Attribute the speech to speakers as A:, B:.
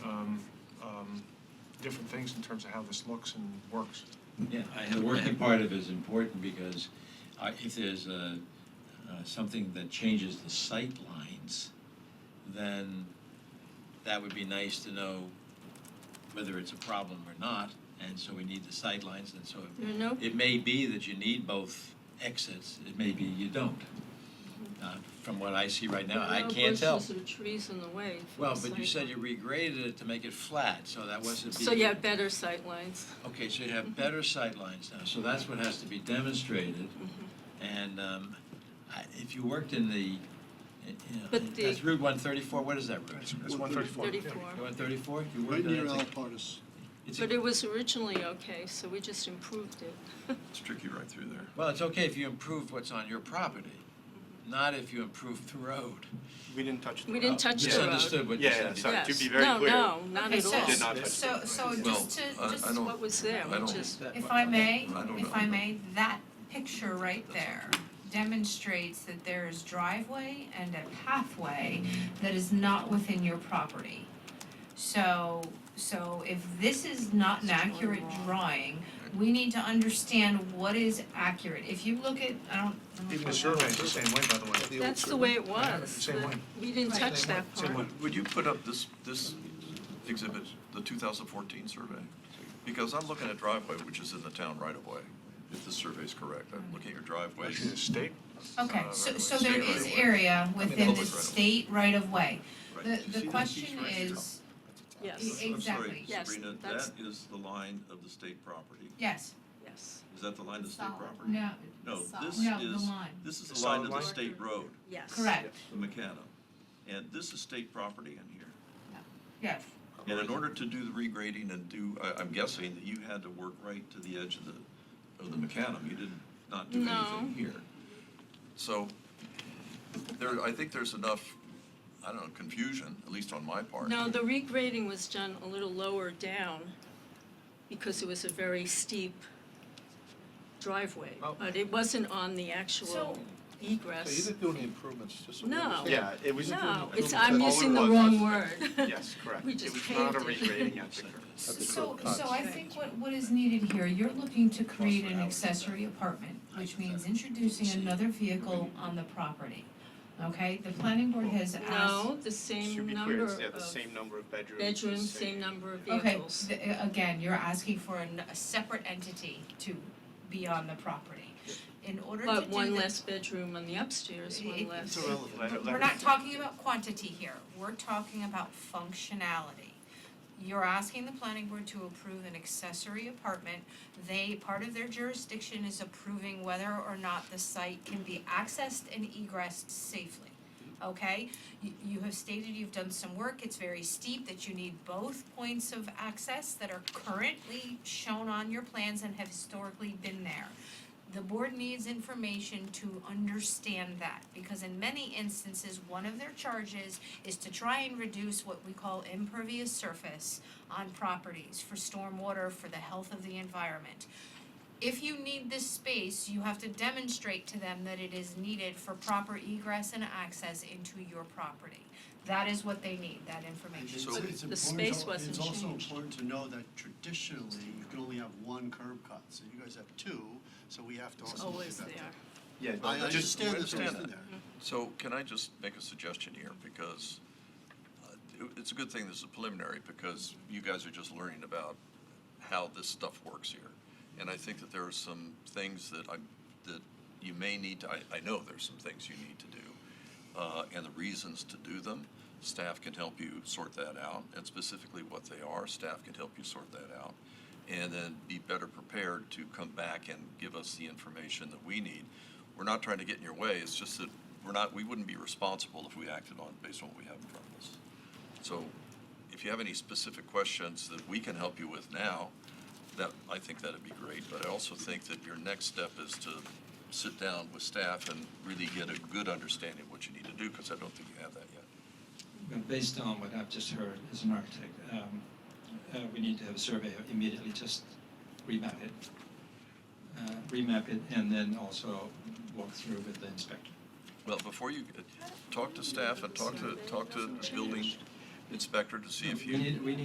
A: um, different things in terms of how this looks and works.
B: Yeah, I
C: The
B: have, I
C: working
B: have-
C: part of it is important because uh, if there's uh, uh, something that changes the sight lines, then that would be nice to know whether it's a problem or not, and so we need the sight lines, and so it-
D: There are no,
C: it may be that you need both exits, it may be you don't. Uh, From what I see right
D: there
C: now, I
D: are no
C: can't tell.
D: bushes or trees in the way. for
C: Well,
D: the
C: but you said
D: sight
C: you
D: line.
C: regraded it to make it flat, so that wasn't.
D: So
C: be-
D: you have better sight lines.
C: Okay, so you
D: Mm-hmm.
C: have better sight lines now, so that's what has to be demonstrated.
D: Mm-hmm.
C: And um, I- if you worked in the, in- you know,
D: But the-
C: that's Route 134, what is that
A: That's
C: route?
A: that's 134. yeah.
D: 34.
C: 134? You
E: Right
C: worked
E: near
C: on that?
E: Alapartis.
C: It's a-
D: But it was originally okay, so we just improved it.
F: It's tricky right through there.
C: Well, it's okay if you improved what's on your property, not if you improved the road.
G: We didn't touch the
D: We didn't
G: route.
D: touch the road.
C: Misunderstood what you
G: Yeah,
C: said.
G: yeah, sorry, to
D: Yes.
G: be very clear.
D: No, no, not
H: Okay,
D: at
H: so-
G: Did
D: all.
G: not touch
H: So, so
F: Well,
H: just to,
F: I- I
H: just
F: don't-
D: What was there,
F: I
D: we
F: don't-
D: just,
H: if I may,
F: I don't
H: if
F: know.
H: I may, that picture right there demonstrates that there is driveway and a pathway that is not within your property. So, so if this is not an accurate drawing, we need to understand what is accurate. If you look at, I don't. I don't
A: Even the
H: know.
A: survey is the same way, by the way.
D: that's the way it
A: Yeah,
D: was.
A: same
D: but
A: one.
D: We didn't touch that
A: Same
D: part.
A: one.
F: Would you put up this, this exhibit, the 2014 survey? Because I'm looking at driveway, which is in the town right away, if the survey's correct. I'm looking at driveways.
A: Actually, the state,
H: Okay,
F: uh,
H: so,
F: right-of-way,
H: so there
F: state
H: is
F: right-of-way.
H: area within the
F: public right-of-way.
H: state right of way.
F: Right. Do you
H: The,
F: see
H: the
F: that?
H: question
F: Right here.
H: is, e,
D: Yes,
F: I'm sorry,
H: exactly.
D: Yes,
F: Sabrina,
D: that's-
F: that is the line of the state property.
H: yes,
D: yes,
F: Is that the line of the state
H: Solid
F: property?
H: no,
F: No, this
H: No, the
F: is,
H: line.
F: this is
A: The
F: the line
A: solid
F: of the
A: line?
F: state road,
D: yes.
H: correct,
F: the macadam. And this is state property in here.
H: yes.
F: And in order to do the regrading and do, I, I'm guessing that you had to work right to the edge of the, of the macadam, you did not do
D: No.
F: anything here. So, there, I think there's enough, I don't know, confusion, at least on my part.
D: No, the regrading was done a little lower down because it was a very steep driveway.
E: Oh.
D: But it wasn't on the actual
H: So-
D: egress.
E: So you didn't do any improvements, just so we
D: No.
E: understand.
G: Yeah, it was.
D: No,
G: it
D: it's,
G: was-
D: I'm
G: all it
D: using the
G: was-
D: wrong word.
G: Yes, correct.
D: We
G: It
D: just
G: was not a
D: paved it.
G: regrading at the curve.
E: At the
H: So,
E: curb
H: so
E: cuts.
H: I think what, what is needed here, you're looking to create
C: Plus
H: an
C: an hour.
H: accessory apartment, which means introducing another vehicle on the property. Okay, the planning board has asked,
D: No, the
G: To
D: same
G: be
D: number
G: clear, it's
D: of
G: yeah, the same number of bedrooms. the
D: bedrooms, same number of
H: okay,
D: vehicles.
H: th- again, you're asking for an- a separate entity to be on the property. In order to do
D: But one
H: the-
D: less bedroom on the upstairs, one
H: It-
D: less.
G: It's irrelevant. I
H: But
G: don't-
H: We're not talking about quantity here, we're talking about functionality. You're asking the planning board to approve an accessory apartment. They, part of their jurisdiction is approving whether or not the site can be accessed and egressed safely. Okay, you, you have stated you've done some work, it's very steep, that you need both points of access that are currently shown on your plans and have historically been there. The board needs information to understand that, because in many instances, one of their charges is to try and reduce what we call impervious surface on properties for stormwater, for the health of the environment. If you need this space, you have to demonstrate to them that it is needed for proper egress and access into your property. That is what they need, that information.
F: So-
E: It's
D: The
E: important-
D: space wasn't
E: It's also
D: changed.
E: important to know that traditionally, you can only have one curb cut, so you guys have two, so we have to
D: It's
E: also look
D: always
E: at that.
D: there.
G: Yeah,
E: I
F: Just-
E: understand this,
F: understand
E: understand
F: that.
E: there.
F: So can I just make a suggestion here, because uh, it- it's a good thing this is preliminary, because you guys are just learning about how this stuff works here. And I think that there are some things that I, that you may need to, I, I know there's some things you need to do, uh, and the reasons to do them. Staff can help you sort that out, and specifically what they are, staff can help you sort that out. And then be better prepared to come back and give us the information that we need. We're not trying to get in your way, it's just that we're not, we wouldn't be responsible if we acted on, based on what we have in front of us. So if you have any specific questions that we can help you with now, that, I think that'd be great. But I also think that your next step is to sit down with staff and really get a good understanding of what you need to do, because I don't think you have that yet.
B: and based on what I've just heard as an architect, um, uh, we need to have a surveyor immediately just remap it. Uh, remap it and then also walk through with the inspector.
F: Well, before you, uh, talk to staff and talk to, talk to building inspector to see if you.
B: We need, we need